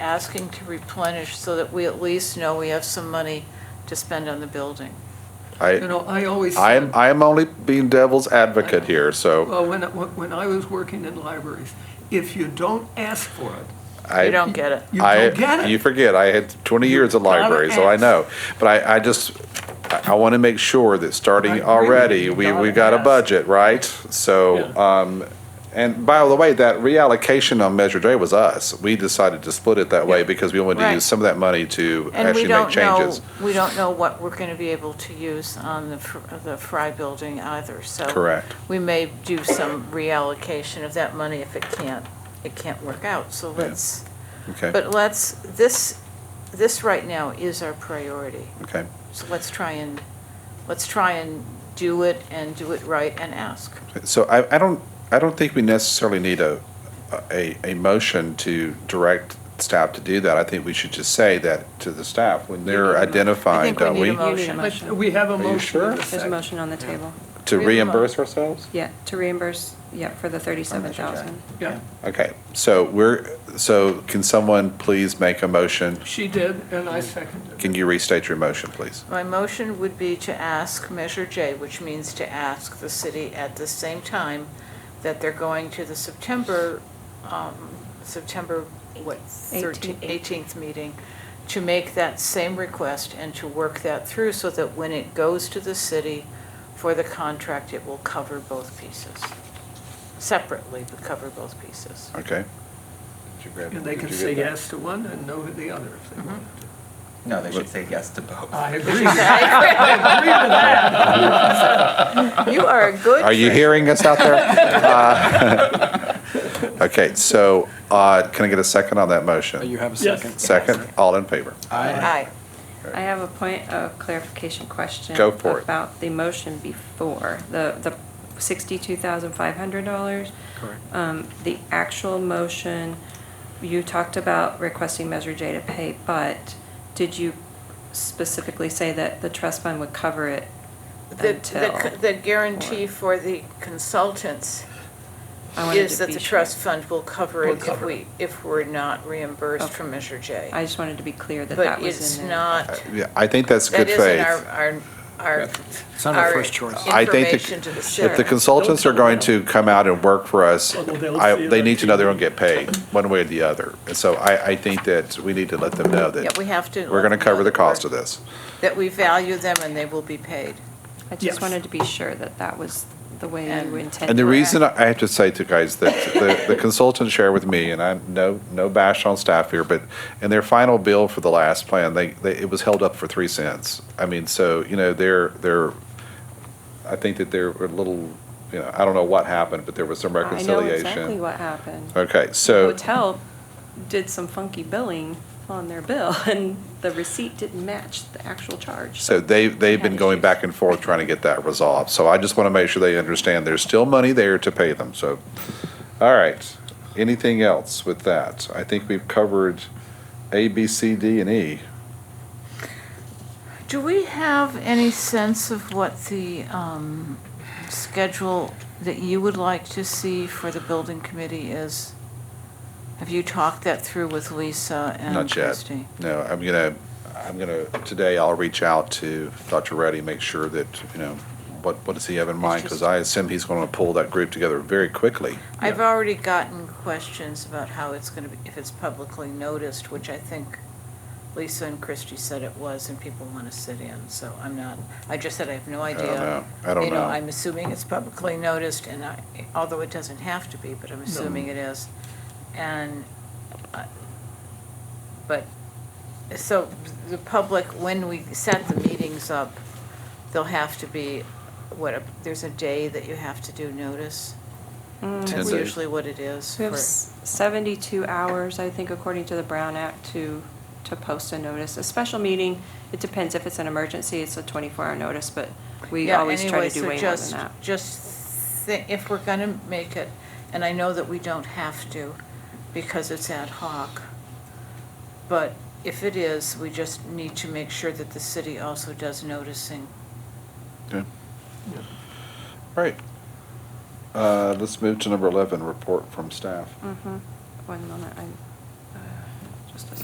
asking to replenish so that we at least know we have some money to spend on the building. I, You know, I always, I am, I am only being devil's advocate here, so well, when, when I was working in libraries, if you don't ask for it, I. You don't get it. you I- don't get You it. forget, I had 20 years at You gotta library, so I ask. know. But I, I just, I want to make sure that I starting agree with you. already, You we, gotta we got a ask. budget, right? So, um, and by the way, that reallocation on Measure J was us. We decided to split it that way Yeah. because we wanted to Right. use some of that money to And we actually make don't know, changes. we don't know what we're going to be able to use on the Fr- the Fry Building either, so. Correct. We may do some reallocation of that money if it can't, it can't work out, so let's, Okay, but let's, this, this right now is our priority. okay. So let's try and, let's try and do it and do it right and ask. So I, I don't, I don't think we necessarily need a, a, a motion to direct staff to do that. I think we should just say that to the staff when they're identifying, don't we we? need a motion. But we have a you motion. sure? in a There's a second. motion on the table. To We have a mo- reimburse ourselves? Yeah, to reimburse, yeah, for the 37,000. Yeah, Okay, so we're, so can someone please make a motion? she did, and I seconded it. Can you restate your motion, please? My motion would be to ask Measure J, which means to ask the city at the same time that they're going to the September, um, September, what, 13th, 18th meeting, to make that same request and to work that through so that when it goes to the city for the contract, it will cover both pieces. Separately, but cover both pieces. Okay? And they can say yes to one and no to the other if they want. No, they should say yes to both. I agree. I agree with that. You are a good. Are you hearing us out there? Uh, Okay, so uh, can I get a second on that motion? Oh, You have a Yes. second? Second, all in favor? Aye. I have a point of clarification question. Go for it. About the motion before, the, the $62,500. Correct. Um, The actual motion, you talked about requesting Measure J to pay, but did you specifically say that the trust fund would cover it The- until? The, the guarantee for the consultants I wanted is to that be the sure. trust fund will cover Will it if cover we, if we're not reimbursed Okay. from Measure J. I just wanted to be clear that that But was it's in there. Uh, not, yeah, I think that's that good isn't faith. our, our, our. It's not our first choice. I think the- Information to the If the city. consultants are going to come out and work for us, Although they'll I- see it they on need to know they're going TV. to get paid, one way or the other. And so I, I think that we need to let them know Yeah, that we have to. we're going to cover the cost of that. this. That we value them and they will be paid. I Yes. just wanted to be sure that that was the way And- you intended. And the it. reason I have to say to guys that the, the consultants share with me, and I'm no, no bash on staff here, but in their final bill for the last plan, they, they, it was held up for three cents. I mean, so, you know, they're, they're, I think that they're a little, you know, I don't know what happened, but there was some I know reconciliation. exactly what happened. Okay, so. Hotel did some funky billing on their bill, and the receipt didn't match the actual charge. So they, they've been going back and forth trying to get that resolved. So I just want to make sure they understand there's still money there to pay them. So, all right. Anything else with that? I think we've covered A, B, C, D, and E. Do we have any sense of what the, um, schedule that you would like to see for the building committee is? Have you talked that through with Lisa and Not yet. Christie? No, I'm gonna, I'm gonna, today I'll reach out to Dr. Reddy, make sure that, you know, what, what does he have in mind? Because I assume he's going to pull that group together very quickly. I've already gotten questions about how it's going to be, if it's publicly noticed, which I think Lisa and Christie said it was, and people want to sit in, so I'm not, I just said I have no I idea. don't know. I don't You know, know. I'm assuming it's publicly noticed, and I, although it doesn't have to be, but I'm assuming it is. And, uh, I- but, so the public, when we set the meetings up, there'll have to be, what, a- there's a day that you have to do notice? Ten That's days. usually what it is. Mm. We have for- s- 72 hours, I think, according to the Brown Act, to, to post a notice. A special meeting, it depends if it's an emergency, it's a 24-hour notice, but we Yeah, always try anyway, to do so way more than just- that. Just, thi- if we're going to make it, and I know that we don't have to because it's ad hoc, but if it is, we just need to make sure that the city also does noticing. Okay. All right. Uh, Mm. Mm-hmm. let's move to number 11, report from staff. Mhm. One moment, I'm, uh, just a